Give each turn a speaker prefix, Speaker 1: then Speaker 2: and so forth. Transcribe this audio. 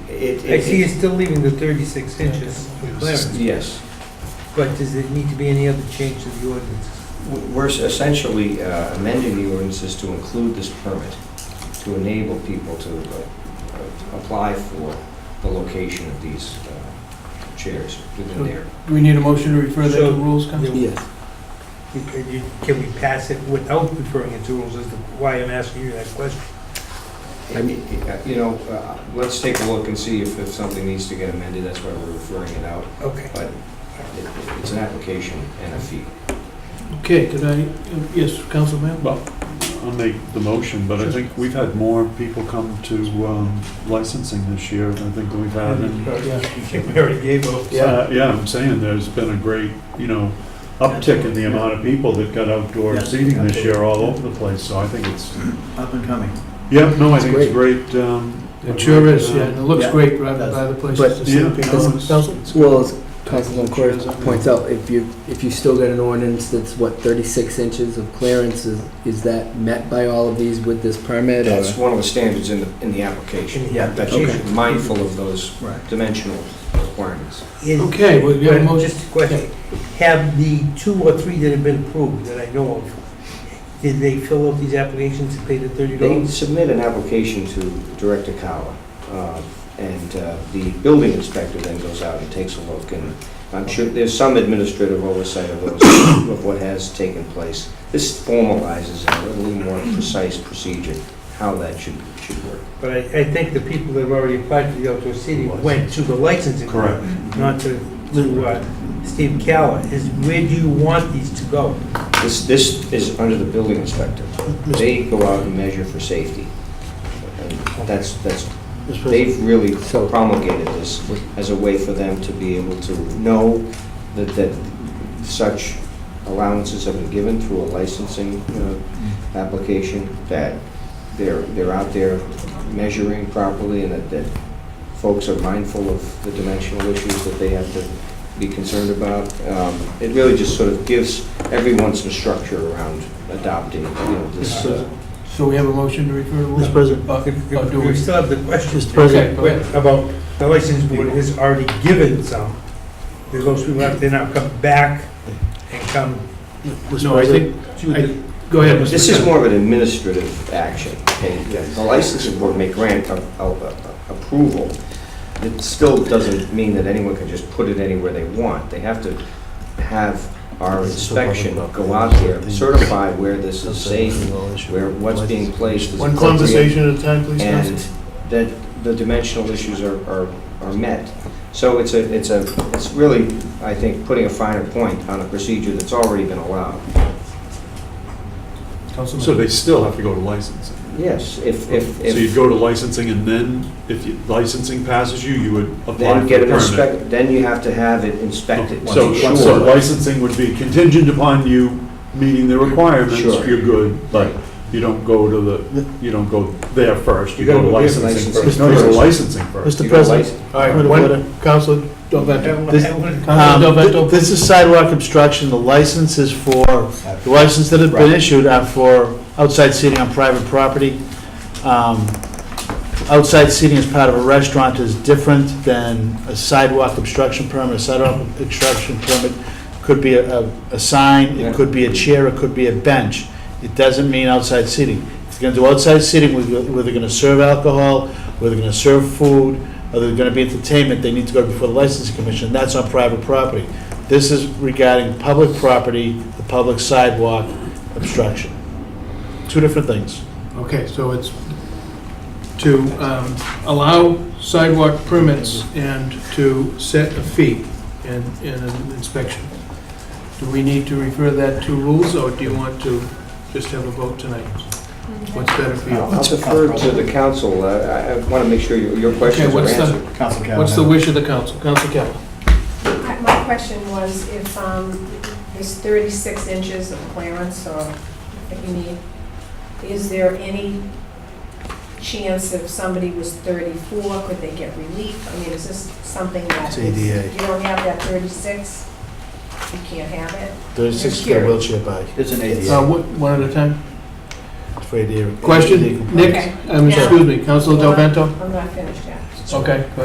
Speaker 1: it-
Speaker 2: I see you're
Speaker 1: it,
Speaker 2: still leaving the 36 inches for clearance,
Speaker 1: yes,
Speaker 2: but does it need to be any other change to the ordinance?
Speaker 1: W- we're essentially uh, amending the ordinances to include this permit, to enable people to uh, uh, apply for the location of these uh, chairs within their
Speaker 3: Do we need a motion to refer that to
Speaker 2: So-
Speaker 3: rules, Council?
Speaker 2: Yes. Can we pass it without referring it to rules, is the- why I'm asking you that question?
Speaker 1: I mean, you know, uh, let's take a look and see if, if something needs to get amended, that's why we're referring it out.
Speaker 2: Okay.
Speaker 1: It- It's an application and a fee.
Speaker 3: Okay, could I, uh, yes, Council Member?
Speaker 4: Well, I'll make the motion, but I think we've had more people come to um, licensing this year, I think, than we've had
Speaker 3: Um,
Speaker 4: in...
Speaker 2: We already gave up.
Speaker 4: Uh, Yeah, I'm saying, there's been a great, you know, uptick in the amount of people that got outdoor
Speaker 3: Yeah.
Speaker 4: seating this year all over the place, so I think it's,
Speaker 5: Up and coming.
Speaker 4: yeah, no, I think it's great. um,
Speaker 3: It sure is, yeah, and it looks
Speaker 5: Yeah.
Speaker 3: great rather by the
Speaker 6: But-
Speaker 3: places to
Speaker 4: Yeah,
Speaker 3: see
Speaker 4: no,
Speaker 3: people.
Speaker 4: it's-
Speaker 3: Council?
Speaker 4: it's-
Speaker 6: Well, as Councilman Corr points out, if you, if you still get an ordinance that's, what, 36 inches of clearance, is, is that met by all of these with this permit? or-
Speaker 1: That's one of the standards in the, in the application,
Speaker 2: Yeah,
Speaker 1: that you should be mindful of those
Speaker 5: Right.
Speaker 1: dimensional requirements.
Speaker 2: Is-
Speaker 3: Okay, well, you have a motion?
Speaker 2: Just a question, have the two or three that have been approved that I know of, did they fill out these applications and pay the thirty
Speaker 1: They
Speaker 2: dollars?
Speaker 1: submit an application to Director Kawa, uh, and uh, the building inspector then goes out and takes a look, and I'm sure there's some administrative oversight of those, of what has taken place. This formalizes a little more precise procedure, how that should, should work.
Speaker 2: But I, I think the people that have already applied for the outdoor seating went to the licensing. board,
Speaker 4: Correct.
Speaker 2: Not to, to, uh, Steve Calla, is where do you want these to go?
Speaker 1: This, this is under the building inspector. They go out and measure for safety. And That's, that's, they've really
Speaker 6: So-
Speaker 1: promulgated this as a way for them to be able to know that, that such allowances have been given through a licensing, you know, application, that they're, they're out there measuring properly and that, that folks are mindful of the dimensional issues that they have to be concerned about. Um, It really just sort of gives everyone some structure around adopting, you know, this. uh,
Speaker 3: So we have a motion to refer to rules?
Speaker 5: Mr. President.
Speaker 3: Uh,
Speaker 2: If-
Speaker 3: uh,
Speaker 2: if
Speaker 3: do
Speaker 2: We
Speaker 3: we-
Speaker 2: still have the questions.
Speaker 5: Mr. President.
Speaker 3: Okay, go ahead.
Speaker 2: About, the license board has already given some, There's those people have to now come back and come
Speaker 3: No, I think,
Speaker 2: to the.
Speaker 3: go ahead, Mr.
Speaker 1: This is
Speaker 3: President.
Speaker 1: more of an administrative action. okay? The licensing board may grant a- a- a- approval. It still doesn't mean that anyone can just put it anywhere they want. They have to have our inspection go out there, certify where this is safe, where what's being placed is
Speaker 3: One
Speaker 1: appropriate.
Speaker 3: conversation at a time, please,
Speaker 1: and
Speaker 3: Council.
Speaker 1: that the dimensional issues are, are, are met. So it's a, it's a, it's really, I think, putting a finer point on a procedure that's already been allowed.
Speaker 4: So they still have to go to licensing.
Speaker 1: Yes, if, if,
Speaker 4: So you'd
Speaker 1: if,
Speaker 4: go to licensing, and then if you- licensing passes you, you would apply
Speaker 1: then
Speaker 4: for
Speaker 1: get
Speaker 4: a
Speaker 1: an
Speaker 4: permit.
Speaker 1: inspect, then you have to have it inspected.
Speaker 4: So,
Speaker 1: Sure.
Speaker 4: so licensing would be contingent upon you meeting the requirements,
Speaker 1: Sure.
Speaker 4: you're good, but you don't go to the, you don't go there first, you go to licensing
Speaker 1: licensing
Speaker 4: first. No, you go to
Speaker 1: first.
Speaker 4: licensing first.
Speaker 1: You
Speaker 5: Mr.
Speaker 1: go
Speaker 5: President.
Speaker 1: license-
Speaker 3: All right,
Speaker 5: Point of
Speaker 3: one, Council Delvetto.
Speaker 5: This- Um,
Speaker 3: Council
Speaker 5: th-
Speaker 3: Delvetto,
Speaker 5: This is sidewalk obstruction, the license is for, the license that have been
Speaker 1: Right.
Speaker 5: issued are for outside seating on private property. Um, Outside seating as part of a restaurant is different than a sidewalk obstruction permit. A sidewalk obstruction permit could be a, a- a sign,
Speaker 1: Yeah.
Speaker 5: it could be a chair, it could be a bench. It doesn't mean outside seating. If they're gonna do outside seating, where where they're gonna serve alcohol, where they're gonna serve food, or there's going to be entertainment, they need to go before the licensing commission, that's on private property. This is regarding public property, the public sidewalk obstruction. Two different things.
Speaker 3: okay, so it's to um, allow sidewalk permits and to set a fee and, and an inspection. Do we need to refer that to rules, or do you want to just have a vote tonight? What's better for you?
Speaker 1: I'll defer to the council, I, I want to make sure your, your questions
Speaker 3: Okay,
Speaker 1: are
Speaker 3: what's the-
Speaker 1: answered.
Speaker 5: Council
Speaker 3: What's the wish of the council? Council Campbell?
Speaker 7: I- My question was if um, there's 36 inches of clearance or that you need, is there any chance if somebody was 34, could they get relief? I mean, is this something that
Speaker 5: It's
Speaker 7: is-
Speaker 5: ADA.
Speaker 7: you don't have that 36, you can't have it?
Speaker 5: 36 get a wheelchair bike
Speaker 8: There's an ADA.
Speaker 3: Uh, what- One at a time?
Speaker 5: for ADA.
Speaker 3: Question, Nick, um, excuse Uh, me, Council Del Vento?
Speaker 7: I'm not finished yet.
Speaker 3: Okay, go ahead.